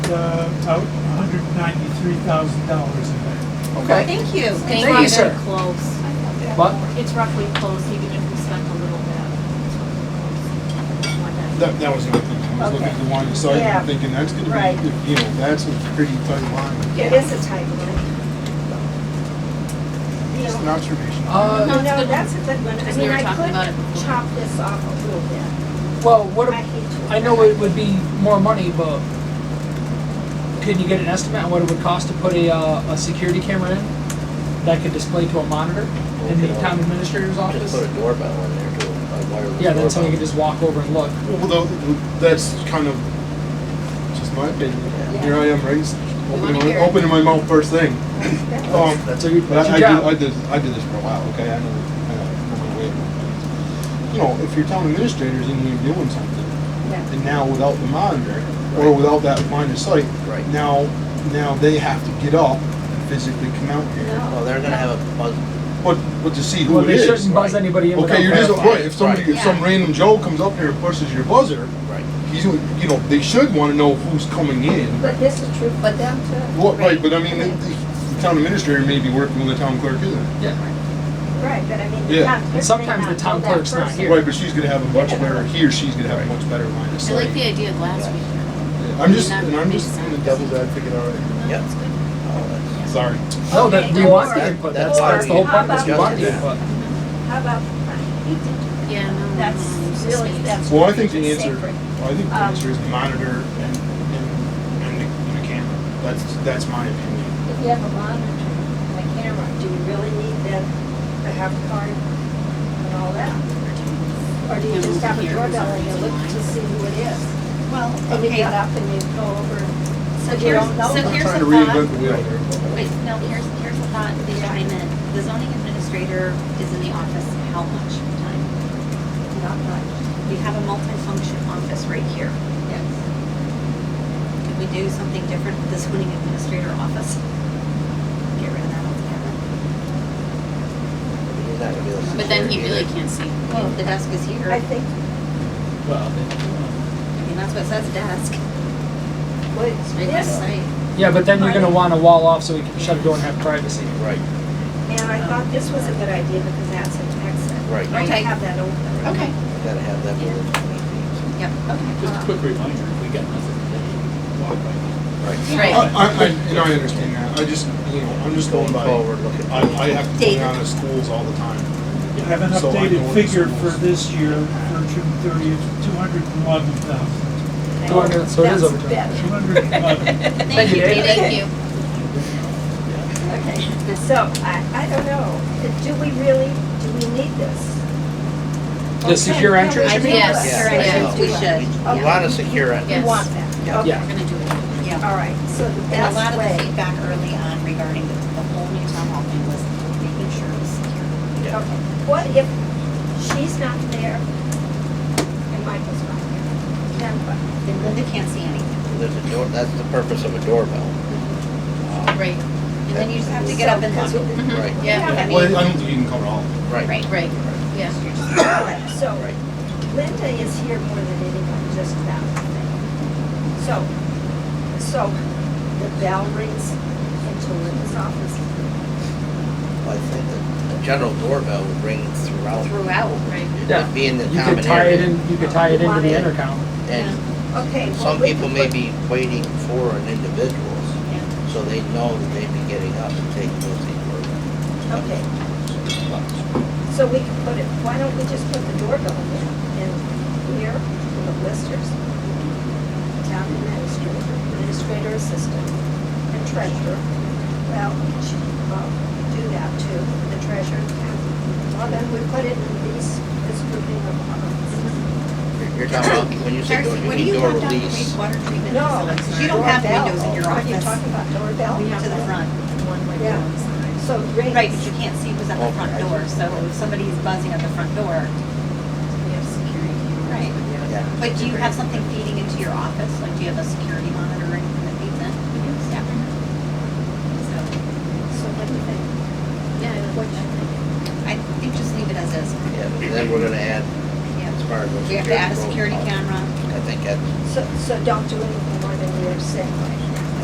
uh, out $193,000 in there. Okay, Thank you. Thank you, It's sir. roughly close. but It's roughly close, even if we spent a little bit. It's roughly close. One ninety. That, that was my thing, I was looking at the line of sight Yeah. and thinking, that's gonna Right. be, you know, that's a pretty tight line. It is a tight one. You It's an know, observation. Uh, No, It's no, good. that's a good one. I Because we mean, were I talking about it could before. chop this off a little bit. Well, what, I ab- hate to. I know it would be more money, but can you get an estimate on what it would cost to put a, uh, a security camera in that could display to a monitor in the town administrator's Just put office? a doorbell in there too, a wireless Yeah, then someone could doorbell. just walk over and look. Well, though, that's kind of just my opinion. Here I am, raised, wanna opening hear my, it. opening my mouth first thing. Um, That's a, But that's I, I your did, I job. did, I did this for a while, okay, I know, I know my way around things. You know, if your town administrator's in here doing something, Yeah. and now without the monitor, or Right. without that line of sight, Right. now, now they have to get up and physically come out here. Well, Oh, they're gonna have a buzz, But, but to see Well, who it they is. shouldn't buzz right. anybody in without Okay, you're just, verifying. right, if somebody, Right. if some Yeah. random Joe comes up here and pushes your buzzer, right, he's, you know, they should wanna know who's coming in. But this is true for them too. What, right, but I mean, the the town administrator may be working with the town clerk, isn't it? Yeah, Right, but I mean, Yeah. the town clerk may sometimes the not town know that clerk's not person. here. Right, but she's gonna have a much better, he or she's gonna have a much better line of I like the sight. idea of last week. I'm just, and I'm Makes just sense. the devil's advocate already. yep. Oh, that's- Sorry. no, that, we want the Or- input, that's, or that's the whole point of this, we how want the about- input. How about, he did, Yeah, no, no. that's no, it's really, space. that's. Well, I think the really answer, sacred. well, I think the Um, answer is the monitor and, and, and the, and the camera. That's, that's my opinion. If you have a monitor and a camera, do you really need that, the half card and all that? Or do you just have a doorbell and you look to see who it is? Well, And you okay, get up and you go over, so so you here's, don't know. so I'm here's trying to a thought. reinvent the wheel here. Wait, no, here's, here's a thought behind it. The zoning administrator is in the office how much time? Not much, We have a multifunction office right here. yes. Could we do something different with the zoning administrator office? Get rid of that altogether. He's not gonna be able to But then he secure it really either. can't see. If The desk is here. I I think, Well, then- mean, that's what it says desk. well, It's right next to yes, site. Yeah, but then you're gonna wanna wall off so we can shut a door and have privacy. Right, and I thought this was a good idea because that's an exit. Right. Don't Okay. Have that open. Okay, You gotta have that within twenty feet. yep, okay. Just a quick reminder, if we got nothing today, walk right in. Right. I, Right. I, I- and I understand that. I just, you know, I'm just going Going by, forward, looking. I, I have to go David. down to schools all the time. You have an So I know updated what figure schools- for this year, for June thirtieth, two hundred and eleven thousand. Go on, yeah, Oh, so it is That's overtime. better. Two hundred and eleven. Thank Thank you, you, David. thank you. Okay, so I, I don't know, do we really, do we need this? The secure Okay, entrance, yeah, you we mean? do Yes, this. Yeah. sure, yes, we should. Okay. A lot of secure We entrance. Yes. want that, Yeah. okay, Yeah. We're gonna do it, yeah. all right, so the And a lot best of the way. feedback early on regarding the, the whole new town hall thing was making sure it was secure. Yeah. Okay, what if she's not there and Michael's not there? Then what? Then Linda can't see anything. There's a door, that's the purpose of a doorbell. Uh, Right. And then you just have to get So, up and because look. we- Mhm. Right. Yeah, I Well, I mean, don't think you can cover all of them. Right. right, right, yeah. Okay, So Linda is here more than anyone, just about. So, so the bell rings into Linda's office. I think that a general doorbell would ring throughout. Throughout, right. Yeah. Be in the You common could tie it area. in, you could tie it into the intercom. And Okay. well, some we people could may put- be waiting for an individual, Yeah. so they know that they'd be getting up and taking those things. Okay, so we could put it, why don't we just put the doorbell in, in here, in the listers? Town administrator, administrator assistant, and treasurer. Well, she, well, do that too, the treasurer. and- Well, then we put it in these, this grouping of columns. You're- You're talking about, when you say door, Darcy, you what do mean you door want down the release. wa- water treatment No. facilities? 'Cause You don't have doorbell. windows in your Are you office. talking about doorbell? We have to the front, one window Yeah. on the side. So rings. Right, but you can't see who's at the front Okay. door, so if somebody's buzzing at the front door, we have security. Right. Yeah. But do you have something feeding into your office? Like, do you have a security monitor or anything that feeds in? Yeah. So, So what do you think? I think just leave it as is. Yeah, but then we're gonna add, as Yeah. far as. those We have to add a security security protocols, camera. I think that's So, so don't do anything more than you're saying right